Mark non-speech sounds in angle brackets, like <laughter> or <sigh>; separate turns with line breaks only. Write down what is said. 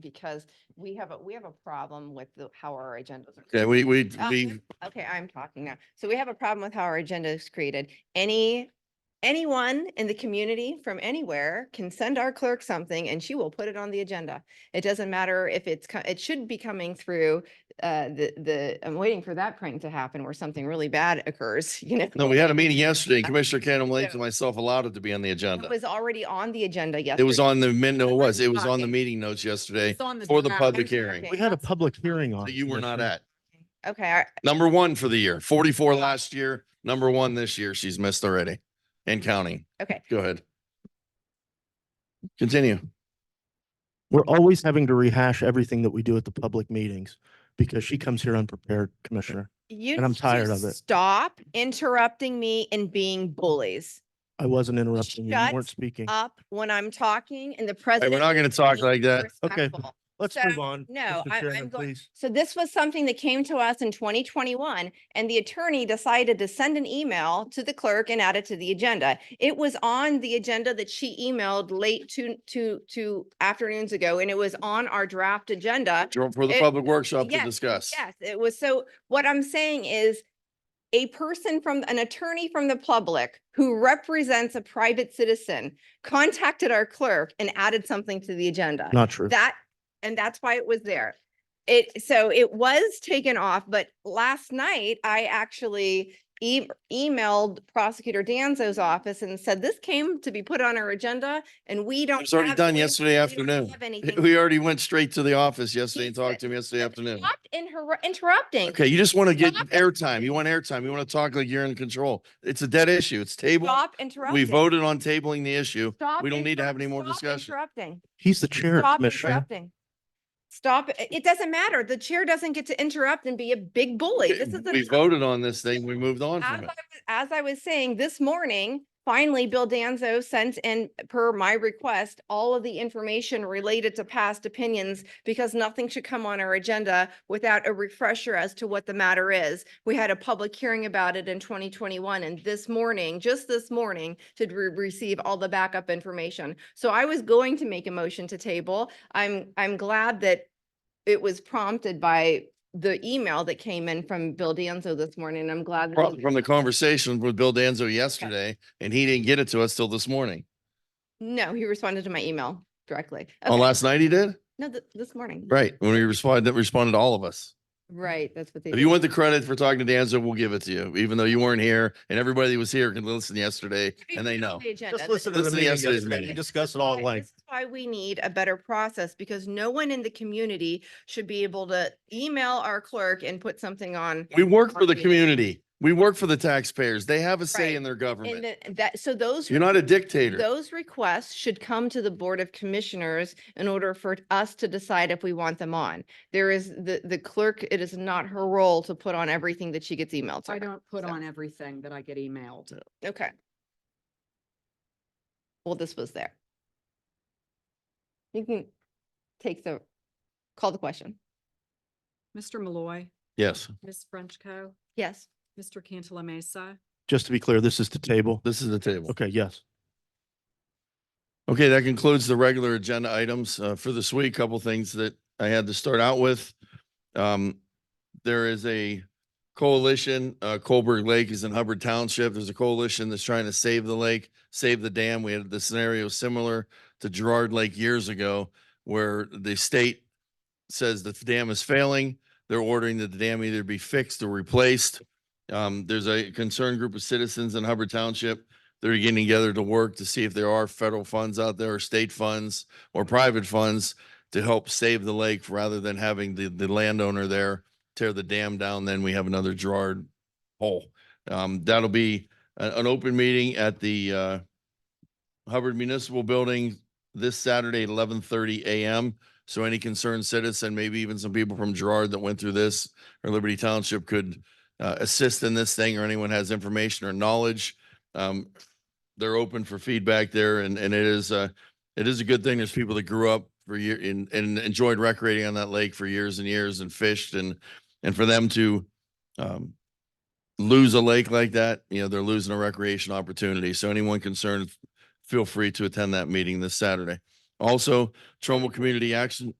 because we have a, we have a problem with the- how our agendas are.
Yeah, we, we,
Uh,
we,
Okay, I'm talking now. So we have a problem with how our agenda is created. Any, anyone in the community from anywhere can send our clerk something and she will put it on the agenda. It doesn't matter if it's, co- it should be coming through, uh, the, the, I'm waiting for that print to happen where something really bad occurs, <laughs> you know?
no, we had a meeting yesterday. and Commissioner Cannon
Oh.
Lake
So-
and myself allowed it to be on the
It
agenda.
was already on the agenda yesterday.
It was on the min, no, it
But
was,
I'm
it was on the
talking.
meeting notes yesterday
It's on
for the
draft.
public hearing
Okay.
We had a public hearing on.
that
it,
you were not
Commissioner.
at.
Okay, I-
Number one for the year, forty-four last year, number one this year. She's missed already and counting.
okay.
Go ahead. Continue.
We're always having to rehash everything that we do at the public meetings because she comes here unprepared, Commissioner.
You
And I'm
need to
tired of it.
Stop interrupting me and being bullies
I wasn't interrupting you. You
Shut
weren't speaking.
up when I'm talking and the
Hey,
president.
we're not going to talk
is
like that.
Okay.
respectful.
Let's
so,
move on.
no,
Mr.
I-
Chairman,
I'm go-
Please.
So this was something that came to us in twenty twenty-one and the attorney decided to send an email to the clerk and add it to the agenda. It was on the agenda that she emailed late two, two, two afternoons ago and it was on our draft agenda.
For the
It-
public workshop to
yes,
discuss.
Yes, it was. So what I'm saying is a person from, an attorney from the public who represents a private citizen contacted our clerk and added something to the agenda.
Not true.
That, and that's why it was there. It, so it was taken off, but last night I actually e- emailed Prosecutor Danzo's office and said, this came to be put on our agenda and we don't.
It was already
have-
done
we-
yesterday
we don't
afternoon. <laughs>
have anything."
We already went straight to the office yesterday
He
and talked
said-
to him yesterday afternoon.
Stop inter- Interrupting.
Okay, you just want to get
Stop it.
airtime. You want airtime. You want to talk like you're in control. It's a dead issue. It's table.
Stop interrupting.
We voted on tabling the issue.
Stop
We don't need to have
interrupt-
any more
stop
discussion.
Interrupting.
He's the chair,
Stop
Commissioner.
interrupting. Stop. it- It doesn't matter. The chair doesn't get to interrupt and be a big bully. This is.
We
an-
voted on this thing. We moved on
As I
from it.
was- as I was saying, this morning, finally, Bill Danzo sent in, per my request, all of the information related to past opinions because nothing should come on our agenda without a refresher as to what the matter is. We had a public hearing about it in twenty twenty-one and this morning, just this morning, did we receive all the backup information. So I was going to make a motion to table. I'm, I'm glad that it was prompted by the email that came in from Bill Danzo this morning. and I'm glad. that
Probably
he-
from the conversation with Bill Danzo yesterday, and he didn't get it to us till this morning.
No, he responded to my email directly.
Oh,
Okay,
last night he did?
No, th- this morning.
Right, when we responded, that responded to all of us.
Right, that's what they.
If you want the credit for talking to Danzo, we'll give it to you, even though you weren't here and everybody that was here can listen yesterday and they know.
Just listen to
Listen to
the meeting
yesterday's
yesterday. We
meeting.
discussed it all at
why-
length.
this is Why we need a better process because no one in the community should be able to email our clerk and put something on.
We work for the
Right.
community. We work for the taxpayers. They have a say
Right.
in their
And
government.
the- that, so those.
You're not a dictator.
Those requests should come to the Board of Commissioners in order for us to decide if we want them on. There is, the, the clerk, it is not her role to put on everything that she gets emailed. to
I
her.
don't put
So-
on everything that I get emailed.
Okay. Well, this was there. You can take the, call the question.
Mr. Malloy,
Yes,
Ms. Frenchco,
Yes.
Mr. Cantala Mesa.
Just to be clear, this is to table.
this is the table.
Okay, yes.
Okay, that concludes the regular agenda items uh, for this week. Couple things that I had to start out with. Um, There is a coalition, uh, Colberg Lake is in Hubbard Township. There's a coalition that's trying to save the lake, save the dam. We had the scenario similar to Gerard Lake years ago where the state says that the dam is failing. They're ordering that the dam either be fixed or replaced. Um, There's a concerned group of citizens in Hubbard Township they're getting together to work to see if there are federal funds out there or state funds or private funds to help save the lake rather than having the, the landowner there tear the dam down, then we have another Gerard hole. Um, that'll be a- an open meeting at the, uh, Hubbard Municipal Building this Saturday, eleven thirty AM. So any concerned citizen, maybe even some people from Gerard that went through this or Liberty Township could, uh, assist in this thing or anyone has information or knowledge. Um, they're open for feedback there and, and it is, uh, it is a good thing. There's people that grew up for year and, and enjoyed recreating on that lake for years and years and fished and, and for them to, um, lose a lake like that, you know, they're losing a recreation opportunity. So anyone concerned, feel free to attend that meeting this Saturday. Also, Trumbull Community Action,